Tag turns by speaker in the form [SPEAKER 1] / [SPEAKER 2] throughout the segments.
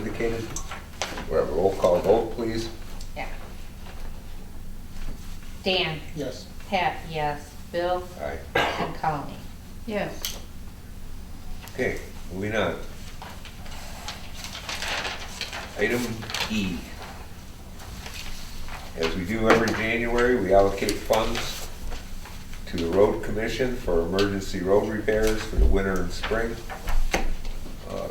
[SPEAKER 1] indicated. We have a roll call vote, please.
[SPEAKER 2] Yeah. Dan?
[SPEAKER 3] Yes.
[SPEAKER 2] Pat, yes. Bill?
[SPEAKER 1] Aye.
[SPEAKER 2] And Colleen?
[SPEAKER 4] Yes.
[SPEAKER 1] Okay, moving on. Item E. As we do every January, we allocate funds to the road commission for emergency road repairs for the winter and spring. Uh,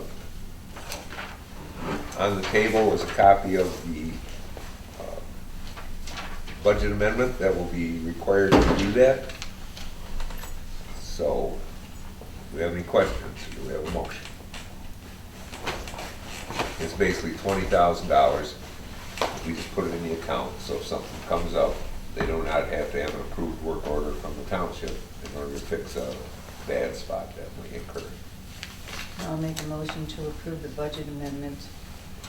[SPEAKER 1] On the table was a copy of the uh, budget amendment that will be required to do that. So do we have any questions? Do we have a motion? It's basically twenty thousand dollars. We just put it in the account, so if something comes up, they do not have to have an approved work order from the township in order to fix a bad spot that we incurred.
[SPEAKER 4] I'll make a motion to approve the budget amendment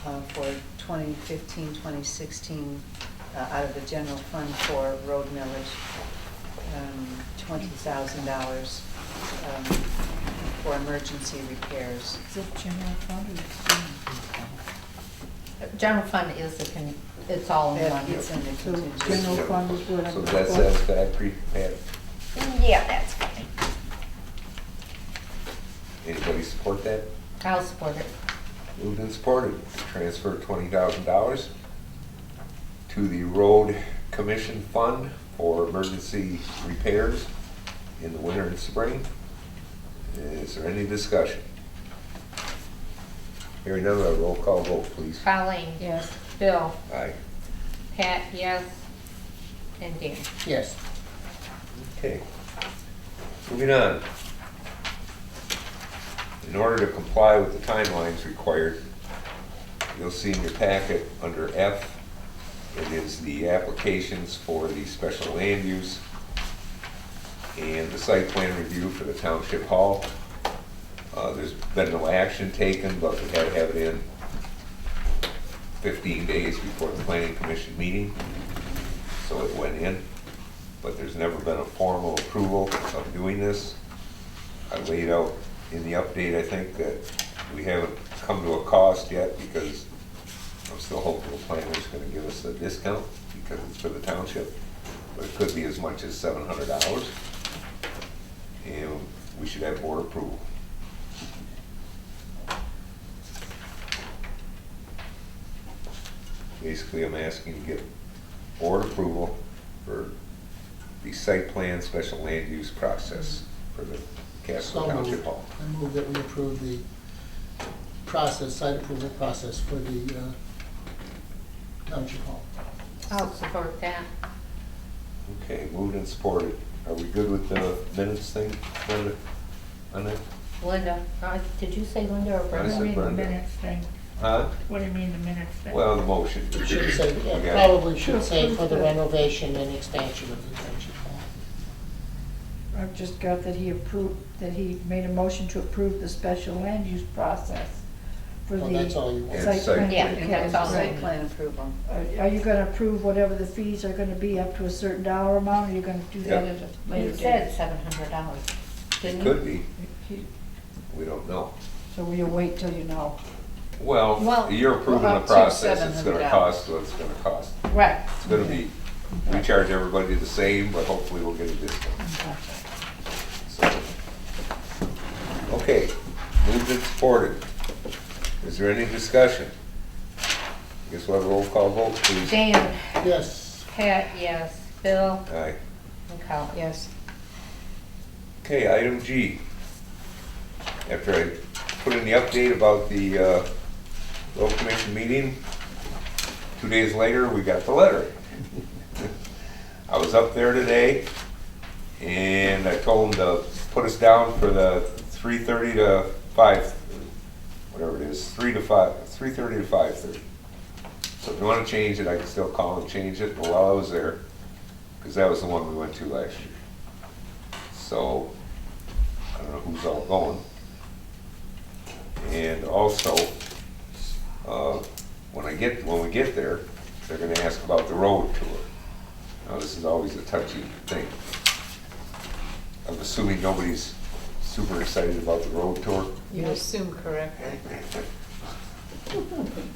[SPEAKER 4] uh, for 2015, 2016, uh, out of the general fund for road millage, um, $20,000 um, for emergency repairs.
[SPEAKER 5] Is it general fund or is
[SPEAKER 2] General fund is the, con- it's all in
[SPEAKER 4] That
[SPEAKER 2] one.
[SPEAKER 4] gets under
[SPEAKER 5] So,
[SPEAKER 4] contingency.
[SPEAKER 5] General fund is what I'm-
[SPEAKER 1] So that's satisfactory, Pat?
[SPEAKER 2] Yeah, that's fine.
[SPEAKER 1] Anybody support that?
[SPEAKER 2] I'll support it.
[SPEAKER 1] Moved and supported, to transfer twenty thousand dollars to the road commission fund for emergency repairs in the winter and spring. Is there any discussion? Hearing none, a roll call vote, please.
[SPEAKER 2] Colleen?
[SPEAKER 5] Yes.
[SPEAKER 2] Bill?
[SPEAKER 1] Aye.
[SPEAKER 2] Pat, yes. And Dan?
[SPEAKER 3] Yes.
[SPEAKER 1] Okay. Moving on. In order to comply with the timelines required, you'll see in your packet under F, it is the applications for the special land use and the site plan review for the township hall. Uh, there's been no action taken, but we had to have it in fifteen days before the planning commission meeting, so it went in but there's never been a formal approval of doing this. I laid out in the update, I think, that we haven't come to a cost yet because I'm still hopeful the planner's gonna give us a discount because it's for the township, but it could be as much as seven hundred dollars. And we should have board approval. Basically, I'm asking to get board approval for the site plan special land use process for the Castle
[SPEAKER 3] So
[SPEAKER 1] Township
[SPEAKER 3] moved.
[SPEAKER 1] Hall.
[SPEAKER 3] I move that we approve the process, site approval process for the uh, Township Hall.
[SPEAKER 2] I'll support that.
[SPEAKER 1] Okay, moved and supported. Are we good with the minutes thing, Linda? On that?
[SPEAKER 2] Linda, uh, did you say Linda or
[SPEAKER 1] I
[SPEAKER 5] What do you
[SPEAKER 1] said
[SPEAKER 2] Brenda?
[SPEAKER 5] mean the
[SPEAKER 1] Brenda.
[SPEAKER 5] minutes thing?
[SPEAKER 1] Huh?
[SPEAKER 5] What do you mean the minutes thing?
[SPEAKER 1] Well, the motion.
[SPEAKER 3] Should say,
[SPEAKER 1] Okay.
[SPEAKER 3] yeah, probably should say for the renovation and expansion of the Township Hall.
[SPEAKER 5] I've just got that he approved, that he made a motion to approve the special land use process for the.
[SPEAKER 3] Well, that's all you want.
[SPEAKER 1] And
[SPEAKER 5] Site plan.
[SPEAKER 2] Yeah,
[SPEAKER 5] for
[SPEAKER 2] that's all.
[SPEAKER 5] Castle.
[SPEAKER 4] Site plan approval.
[SPEAKER 5] Are are you gonna approve whatever the fees are gonna be up to a certain dollar amount, or you are gonna do that
[SPEAKER 1] Yeah.
[SPEAKER 5] at a later
[SPEAKER 2] You
[SPEAKER 5] date?
[SPEAKER 2] said seven hundred dollars,
[SPEAKER 1] It
[SPEAKER 2] didn't you?
[SPEAKER 1] could be,
[SPEAKER 5] He-
[SPEAKER 1] we don't know.
[SPEAKER 5] So will you wait till you know?
[SPEAKER 1] Well,
[SPEAKER 2] Well,
[SPEAKER 1] you're approving the
[SPEAKER 4] up to
[SPEAKER 1] process, it's gonna
[SPEAKER 4] $700.
[SPEAKER 1] cost what it's gonna cost.
[SPEAKER 2] Right.
[SPEAKER 1] It's gonna be, we charge everybody the same, but hopefully we'll get a discount, so. Okay, moved and supported. Is there any discussion? Guess we'll have a roll call vote, please.
[SPEAKER 2] Dan?
[SPEAKER 3] Yes,
[SPEAKER 2] Pat, yes. Bill?
[SPEAKER 1] Aye.
[SPEAKER 2] And Colleen?
[SPEAKER 4] Yes.
[SPEAKER 1] Okay, item G. After I put in the update about the uh, road commission meeting, two days later, we got the letter. I was up there today, and I told them to put us down for the 3:30 to 5, whatever it is, 3 to 5, 3:30 to 5:30. So if you want to change it, I can still call and change it, but while I was there, because that was the one we went to last year. So, I don't know who's all going. And also, uh, when I get, when we get there, they're gonna ask about the road tour. Now, this is always a touchy thing. I'm assuming nobody's super excited about the road tour.
[SPEAKER 4] You assume correctly.